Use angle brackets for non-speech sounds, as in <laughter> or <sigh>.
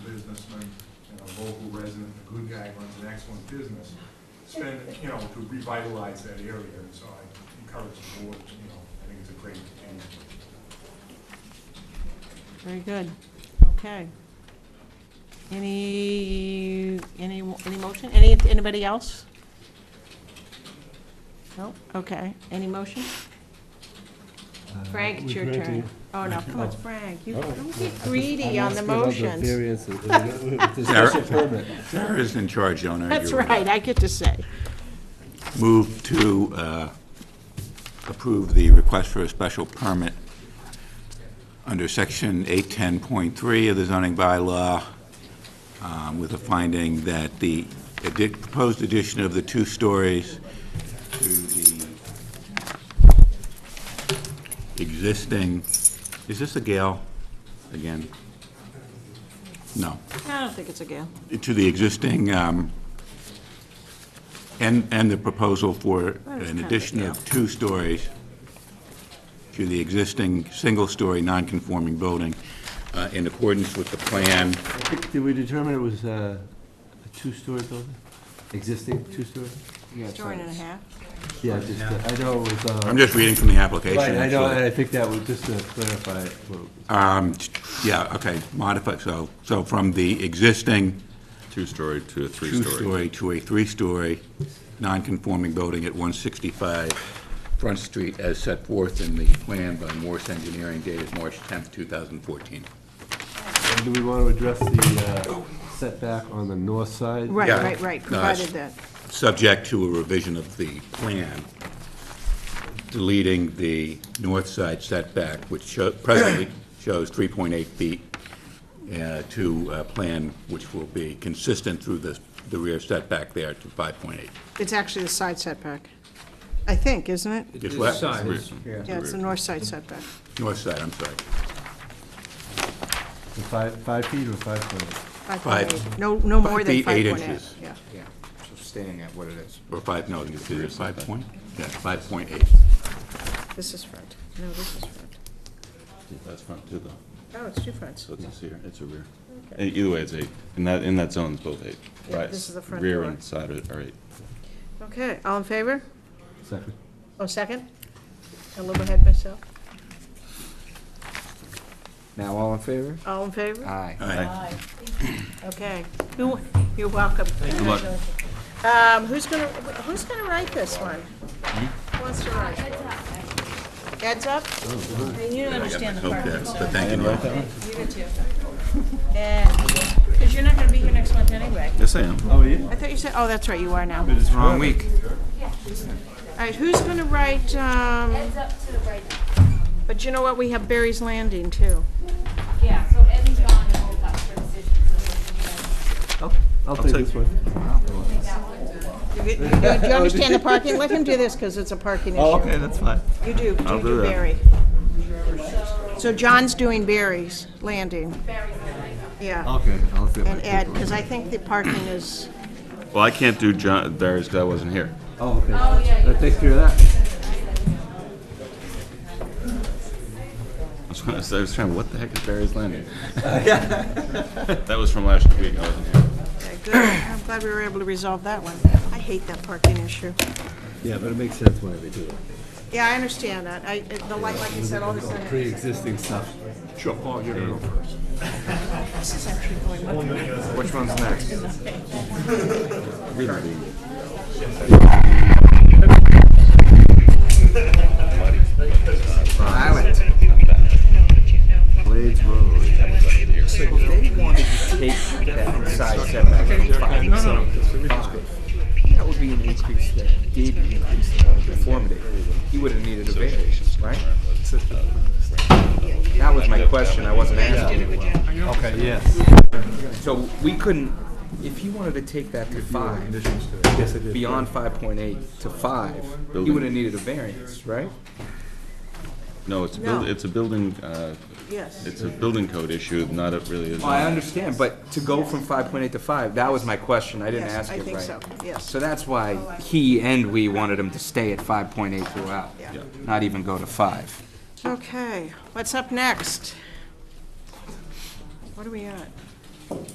local resident, a good guy, runs an excellent business, spend, you know, to revitalize that area, and so I encourage the board, you know, I think it's a great candidate. Very good. Okay. Any, any, any motion? Any, anybody else? No? Okay. Any motion? Frank, it's your turn. Oh, no, come on, it's Frank. You don't get greedy on the motions. Sarah is in charge, <laughs> Eleanor. That's You're right, I get to say. Move to uh, approve the request for a special permit under section 810.3 of the zoning bylaw um, with a finding that the addi- proposed addition of the two stories to the existing, is this a gale again? No. I don't think it's a gale. to the existing, um, and, and the proposal for is an kind of addition yeah. of two stories to the existing single-story non-conforming building uh, in accordance with the plan. Did we determine it was uh, a two-story building? Existing two-story? Story and a half. Yeah, just, uh, I know it was, I'm uh, just reading from the application. right, I know, so- and I think that was just to clarify. what it was. Um, yeah, okay, modify, so, so from the existing Two-story to a three-story. two-story to a three-story non-conforming building at 165 Front Street as set forth in the plan by Morse Engineering dated March 10th, 2014. And do we want to address the uh, setback on the north side? Right, Yeah. right, right, No, that's- provided that. Subject to a revision of the plan, deleting the north side setback, which show- presently shows 3.8 feet, uh, to a plan which will be consistent through the the rear setback there to 5.8. It's actually the side setback, I think, isn't it? It's what? Yeah, it's the north side setback. North side, I'm sorry. The Five, five feet or five foot? Five Five- point eight. No, no more than feet, five eight point eight. inches. Yeah. Yeah, so staying at what it is. Or five, no, is it five point? Yeah, five point eight. This is front. No, this is front. That's front too, though. Oh, it's two fronts. So it's a rear, it's a rear. Okay. Either way, it's eight. In that, in that zone, it's both eight. Yeah, Right, this is the front Rear door. and side are are eight. Okay, all in favor? Second. Oh, second? A little ahead myself. Now, all in favor? All in favor? Aye. Aye. Okay. Who- You're welcome. Good luck. Um, who's gonna, who's gonna write this one? Who wants to write? Heads up? You don't understand the part, Yes, but thank you, Neil. you do too. Because you're not gonna be here next month anyway. Yes, I am. I thought you said, oh, that's right, you are now. It's wrong week. All right, who's gonna write, um, Ed's up to the right. but you know what, we have Barry's Landing too. Yeah, so Ed and John are both up for decision, so Oh, we can, uh, I'll I'll take this one. You- you- Do you understand the parking? Let him do this, because it's a parking issue. Okay, that's fine. You do, you do do that. Barry. So John's doing Barry's Landing. Yeah, Okay. I'll take my and paper. Ed, because I think the parking is, Well, I can't do John, Darius, because I wasn't here. Oh, okay. That takes care of that. I was trying, I was trying, what the heck is Barry's Landing? That was from last week, I wasn't here. okay, uh, good. I'm glad we were able to resolve that one. I hate that parking issue. Yeah, but it makes sense why we do it. Yeah, I understand that. I, it- the light, like you said, all the time. Pre-existing stuff. Sure, Paul, you're gonna go first. Which one's next? Island. Blades Road. Take that side setback from five to five. That would be an increase that, deep increase in conformity. He would have needed a variance, right? That was my question, I wasn't asking. Okay, yes. So we couldn't, if you wanted to take that to five, beyond five point eight to five, you Building. would have needed a variance, right? No, it's a No. building, it's a building, uh, Yes. it's a building code issue, not it really is. Well, I understand, but to go from five point eight to five, that was my question, I didn't Yes, ask I it right. think so, yes. Oh, So that's why he and we wanted him to stay at five point eight throughout, Yeah. Yeah. not even go to five. Okay, what's up next? What are we at?